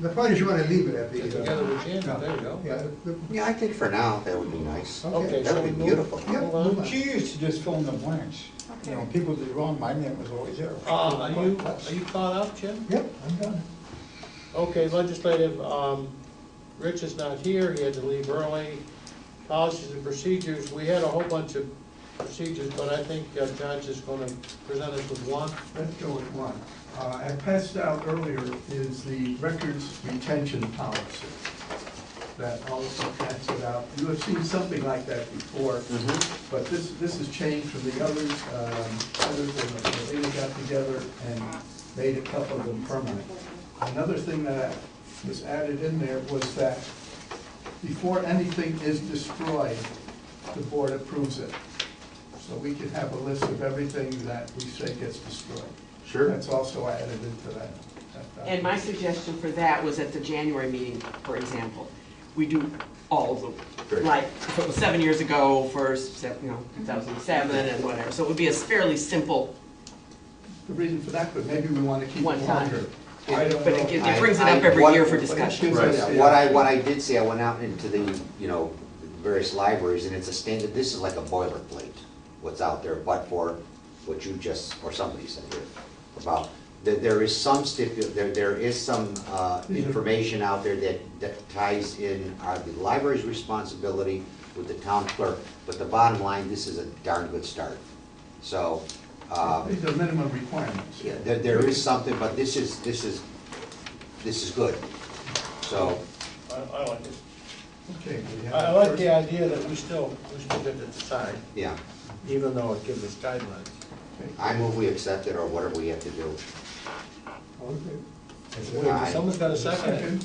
The point is you wanna leave it at Get the, together uh, with Jim, there you go. yeah, the- Yeah, I think for now, that would be nice. Okay, Okay, That so would be we move- beautiful. yeah, Hold on. move on. She used to just fill in the blanks. You know, Okay. people did wrong, my name was always there. Uh, are you, are you caught up, Jim? Yep, I'm done. Okay, legislative, um, Rich is not here, he had to leave early. Policies and procedures, we had a whole bunch of procedures, but I think uh, John's just gonna present us with one. Let's go with one. Uh, I passed out earlier is the records retention policy that also passed out. You have seen something like that before, but this, this has changed from the others. Um, Others, they they got together and made a couple of them permanent. Another thing that was added in there was that before anything is destroyed, the board approves it. So we can have a list of everything that we say gets destroyed. Sure. That's also added into that. that document. And my suggestion for that was at the January meeting, for example, we do all of them. Great. Like, if it was seven years ago, first, se- you know, 2007 and whatever, so it would be a fairly simple The reason for that, but maybe we want to keep it One time. longer. I don't But it gi- know. it brings it I- up every I- year for what- discussion. Right, yeah. what I, what I did see, I went out into the, you know, various libraries, and it's a standard, this is like a boilerplate, what's out there, but for what you just, or somebody said here, about, that there is some stipu, there, there is some, uh, information out there that, that ties in, uh, the library's responsibility with the town clerk, but the bottom line, this is a darn good start. So, um, These are minimum requirements. yeah, there, there is something, but this is, this is, this is good. So, I, I like it. Okay. we have I I like first- the idea that we still, we still get to decide, yeah, even though it gives us guidelines. okay. I move we accept it or whatever we have to do. All in favor? Wait, someone's got a second it? Second.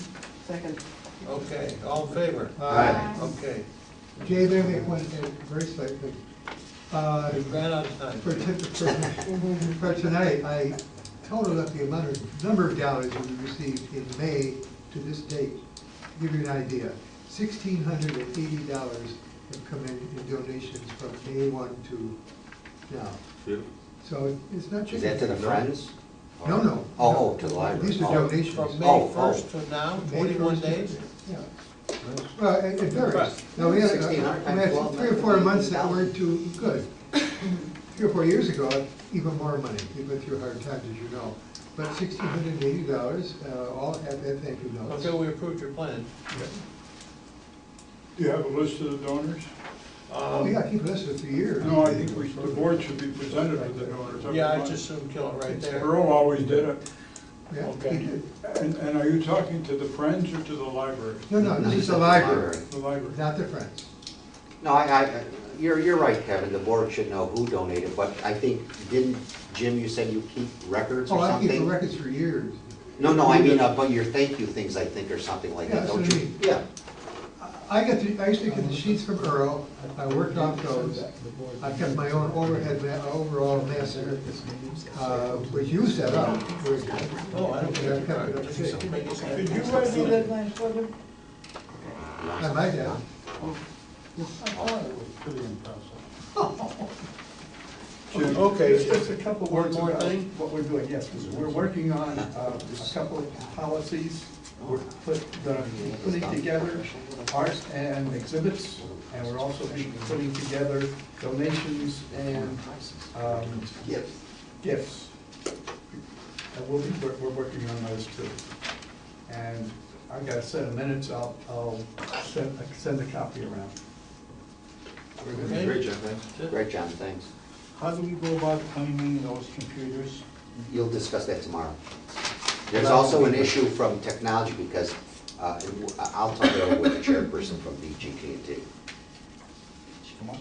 second. Okay, all in favor? Aye. Okay, Uh, Jay, there they went in very slightly. Uh, we ran out of time. For ti- for- for tonight, I totaled up the amount of, number of dollars that we received in May to this date. To Give you an idea, sixteen hundred and eighty dollars have come in in donations from May one to now. So it's not Is just. that to the Friends? No, no. Oh, oh, to the library. These are Oh. donations. From Oh, May oh. first to now, May forty-one first. days? Yeah. Well, it it varies. Right. Now, we had, uh, 1600 we had times 12, three or four months that 180,000. weren't too good. Three or four years ago, even more money, we went through hard times, as you know. But sixteen hundred and eighty dollars, uh, all have that thank you notes. Okay, um, we approved your plan. Do you have a list of the donors? Um, Oh, yeah, keep this for three years. No, I think we, the board should be presented with the donors. every Yeah, I month. just assumed kill it right there. Earl always did it. Yeah, Okay. he did. And, and are you talking to the Friends or to the library? No, no, this is the library, The library. not the Friends. No, I, I, you're, you're right, Kevin, the board should know who donated, but I think, didn't, Jim, you said you keep records Oh, or I keep the something? records for years. No, no, I mean, uh, but your thank you things, I think, or something like Yeah, that, don't that's what I you? mean. Yeah, I get the, I used to get the sheets from Earl, I worked off those. I kept my own overhead, ma- overall master, uh, which you set up. Oh, I don't care. Yeah, I kept it up to date. Did you write any deadlines for them? I might have. I thought it was pretty impressive. Jim, Okay. Just just a couple One words more about thing? what we're doing, yes, 'cause we're working on uh, a couple of policies. We're put, the- putting together art and exhibits, and we're also be putting together donations and um, gifts. And we'll be, we're, we're working on those too. And I got a set of minutes, I'll, I'll send, send a copy around. We're gonna- Okay. Great, John, thanks. Great, John, thanks. How do we go about claiming those computers? You'll discuss that tomorrow. There's also an issue from technology because, uh, it w- I- I'll talk it over with the chairperson from BGKT. Come on.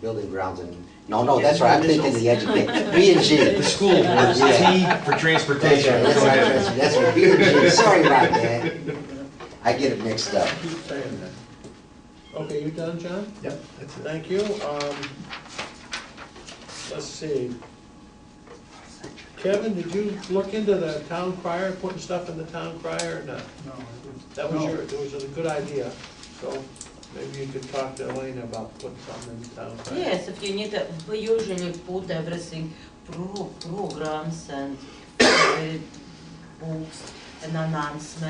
Building grounds and, no, no, that's right, I'm thinking the education, B and G. The school, T for That's transportation. right, that's right, that's right, B and G, sorry about that. I get it mixed up. Keep saying that. Okay, you done, John? Yep, that's it. Thank you. Um, let's see. Kevin, did you look into the town crier, putting stuff in the town crier or not? No, I didn't. That was No. your, it was a good idea, so maybe you could talk to Elena about putting something in the town crier. Yes, if you need, a- we usually put everything, pro- programs and uh, books and announcements.